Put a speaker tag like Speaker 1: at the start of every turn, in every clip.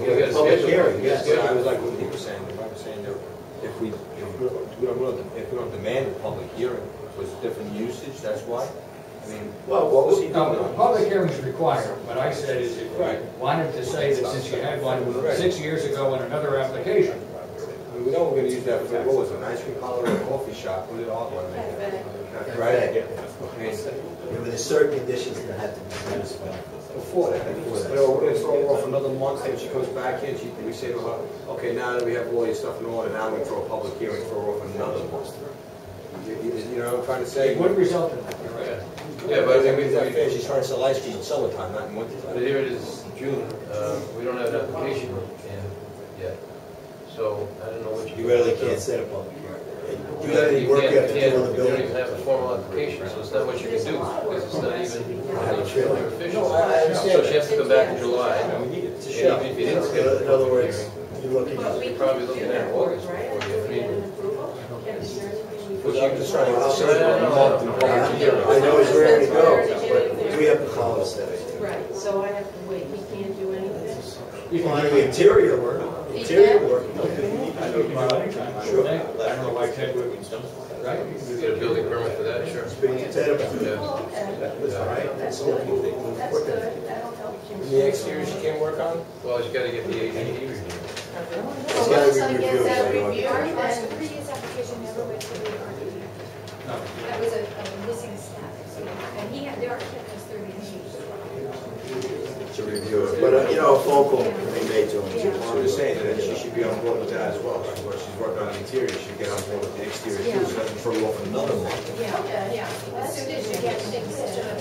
Speaker 1: we gotta
Speaker 2: Public
Speaker 1: schedule-
Speaker 2: hearing,
Speaker 1: we gotta
Speaker 2: yes,
Speaker 1: schedule-
Speaker 2: I was like what he was saying, if I was saying that if we, if we don't- we don't, really- if we don't demand a public hearing, if it's different usage, that's why? I mean,
Speaker 3: Well,
Speaker 2: what was he
Speaker 4: No,
Speaker 2: doing?
Speaker 4: the public hearing is required. What I said is if you wanted to say that since you had one six years ago in another application,
Speaker 2: I mean, We know we're gonna use that for, what was it, an ice cream parlor or a coffee shop, what did all want to make that? Right? I mean,
Speaker 3: There were certain conditions that had to be satisfied.
Speaker 2: Before that, you know, we're gonna throw her off another month, and she comes back here, and she, we say to her, okay, now that we have all your stuff in order, now we throw a public hearing, throw her off another month. You- You you know what I'm trying to say?
Speaker 4: it would result in that. You're right.
Speaker 1: Yeah, but I
Speaker 2: I
Speaker 1: mean, we,
Speaker 2: mean, that fair,
Speaker 1: we-
Speaker 2: she's trying to sell ice cream in summertime, not in
Speaker 1: but
Speaker 2: wintertime.
Speaker 1: here it is, June, uh, we don't have an application in yet, so I don't know what you.
Speaker 3: You really can't set a public hearing.
Speaker 1: You
Speaker 3: You have
Speaker 1: can't-
Speaker 3: to
Speaker 1: you
Speaker 3: work,
Speaker 1: can't-
Speaker 3: you have to do on the
Speaker 1: You don't even
Speaker 3: building.
Speaker 1: have a formal application, so it's not what you can do, because it's not even
Speaker 3: Sure.
Speaker 1: official.
Speaker 2: No, I- I understand
Speaker 1: So she has to come back in July,
Speaker 2: I mean, we need it. It's a
Speaker 1: and
Speaker 2: show.
Speaker 1: even if you
Speaker 3: In
Speaker 1: didn't schedule.
Speaker 3: in other words, you're looking
Speaker 5: But
Speaker 3: at
Speaker 5: we
Speaker 1: You're probably looking at August
Speaker 5: right?
Speaker 1: before you- I mean-
Speaker 5: An approval? Yeah, is there anything we-
Speaker 2: But I'm just trying to say,
Speaker 1: No, no, no, no.
Speaker 2: a month in public hearing.
Speaker 3: I know it's rare to go, but we
Speaker 5: Right,
Speaker 3: have to follow that.
Speaker 5: so I have to wait, he can't do anything? Oh,
Speaker 4: You
Speaker 3: On
Speaker 4: can
Speaker 3: the
Speaker 4: do it.
Speaker 3: interior work, interior work,
Speaker 4: I don't know why Ted would, right? You can do
Speaker 1: You
Speaker 4: the-
Speaker 1: Get a building permit for that, sure.
Speaker 3: being
Speaker 1: Yeah.
Speaker 3: interior.
Speaker 5: Well, okay,
Speaker 3: That's all we think.
Speaker 5: that's good, that'll help you.
Speaker 2: The exterior she can't work on?
Speaker 1: Well, you gotta get the ADD reviewed.
Speaker 6: So
Speaker 3: gotta
Speaker 6: once
Speaker 3: be
Speaker 6: I
Speaker 3: reviewed,
Speaker 6: get that
Speaker 3: I know.
Speaker 6: reviewed, then the previous application never went to the RDE.
Speaker 4: No.
Speaker 6: That was a a missing step. And he had, the architect was thirty years.
Speaker 3: To review it, but, uh, you know, a phone call can be made to him.
Speaker 2: So I'm just saying that she should be on board with that as well, right? Where she's working on the interior, she should get on board with the exterior too, so it doesn't throw you off another month.
Speaker 6: Yeah, yeah. As soon as you get things to the to Mr.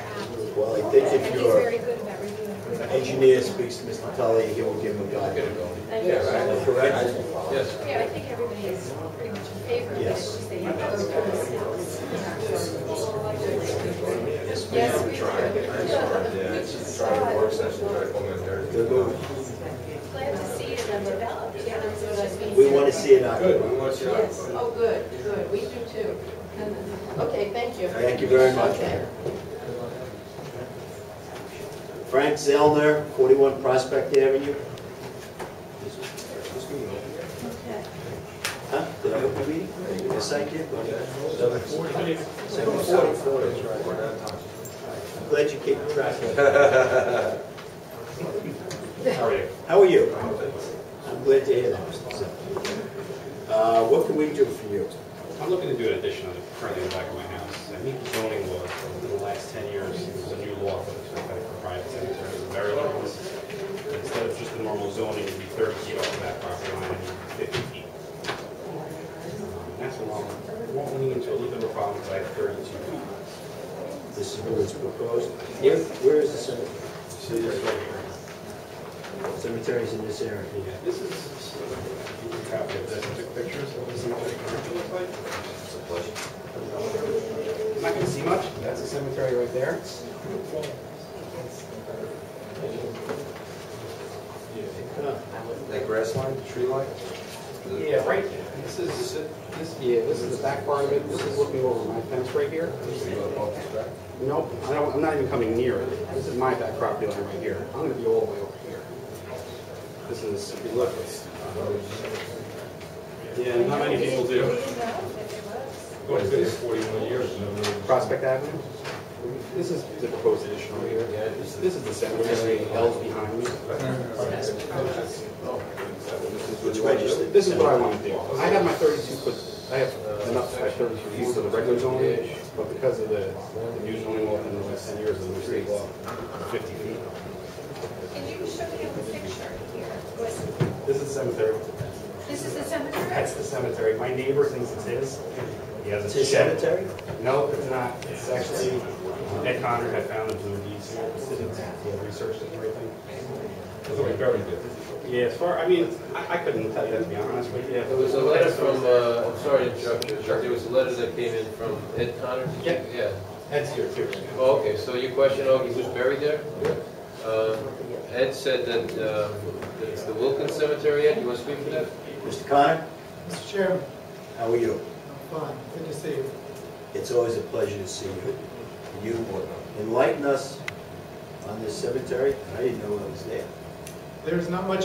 Speaker 6: Abt.
Speaker 3: Well, I think
Speaker 6: And
Speaker 3: if
Speaker 6: he's
Speaker 3: your
Speaker 6: very good about reviewing.
Speaker 3: engineer speaks to Mr. Tully, he will give him a
Speaker 1: Get it
Speaker 3: guide.
Speaker 1: going.
Speaker 2: Yeah, right? Correct.
Speaker 1: Yes.
Speaker 6: Yeah, I think everybody is pretty much in favor of it.
Speaker 3: Yes.
Speaker 6: It's just they have to go through the steps. Yes, we do. Which is
Speaker 2: Work
Speaker 6: sad.
Speaker 2: session, right, home and there.
Speaker 3: Good move.
Speaker 6: Glad to see it and developed. Yeah, that's what I mean.
Speaker 3: We want to see it occupied.
Speaker 2: Good, we want you to-
Speaker 5: Yes, oh, good, good, we do too. Okay, thank you.
Speaker 3: Thank you very much.
Speaker 5: Okay.
Speaker 3: Frank Zellner, 41 Prospect Avenue.
Speaker 5: Okay.
Speaker 3: Huh? Did I open the meeting? Yes, I did. buddy.
Speaker 2: Seven forty-four is right, we're not talking.
Speaker 3: I'm Glad you keep track. How are you? I'm glad to hear that. Mr. Zellner. Uh, What can we do for you?
Speaker 7: I'm looking to do an addition on the, currently in the back of my house. I meet zoning law for the last 10 years. There's a new law for this, I think, for private cemeteries and burial grounds. Instead of just the normal zoning, it'd be 30 feet off the back property line and 50 feet. Um, That's a long, won't lean into a little bit of a problem because I have 32 feet.
Speaker 3: This is what was proposed. Where where is the cemetery?
Speaker 7: So this right here.
Speaker 3: Cemeteries in this area.
Speaker 7: Yeah, this is, you can copy of this, I took pictures of what the cemetery currently looks like. I'm not gonna see much, but that's a cemetery right there.
Speaker 2: That grass line, tree line?
Speaker 7: Yeah, right, this is, this, yeah, this is the back part of it, this is looking over my fence right here. Nope, I don't, I'm not even coming near it, this is my back property line right here, I'm gonna be all the way over here. This is, if you look, it's. Yeah, not many people
Speaker 6: We
Speaker 7: do.
Speaker 6: didn't know that there was.
Speaker 7: What is this? Forty-one years. Prospect Avenue? This is the proposed addition over here, this this is the cemetery, hell's behind me.
Speaker 3: It's registered.
Speaker 7: This is what I want to do. I have my thirty-two foot, I have enough, I have thirty-two feet for the regular zoning, but because of the, the new zoning law in the last ten years, the state law, fifty feet.
Speaker 6: Can you show me the picture here? Was-
Speaker 7: This is cemetery.
Speaker 6: This is the cemetery?
Speaker 7: That's the cemetery. My neighbor thinks it's his. He has
Speaker 3: It's
Speaker 7: a
Speaker 3: a
Speaker 7: shed.
Speaker 3: cemetery?
Speaker 7: No, it's not. It's actually, Ed Connor had found the blue deeds here. He had researched it and everything. Yeah, as far, I mean, I, I couldn't tell you, to be honest with you.
Speaker 1: There was a letter from, uh, I'm sorry to interrupt you, Chuck. there was a letter that came in from Ed Connor.
Speaker 7: Yeah.
Speaker 1: Yeah.
Speaker 7: Ed's here too.
Speaker 1: Oh, okay, so your question, oh, he was buried there? Uh, Ed said that, uh, it's the Wilkins Cemetery, Ed, you want to speak to that?
Speaker 3: Mr. Connor,
Speaker 8: Mr. Chairman,
Speaker 3: how are you?
Speaker 8: I'm fine, good to see you.
Speaker 3: It's always a pleasure to see you. You enlighten us on this cemetery. I didn't know it was there.
Speaker 8: there's not much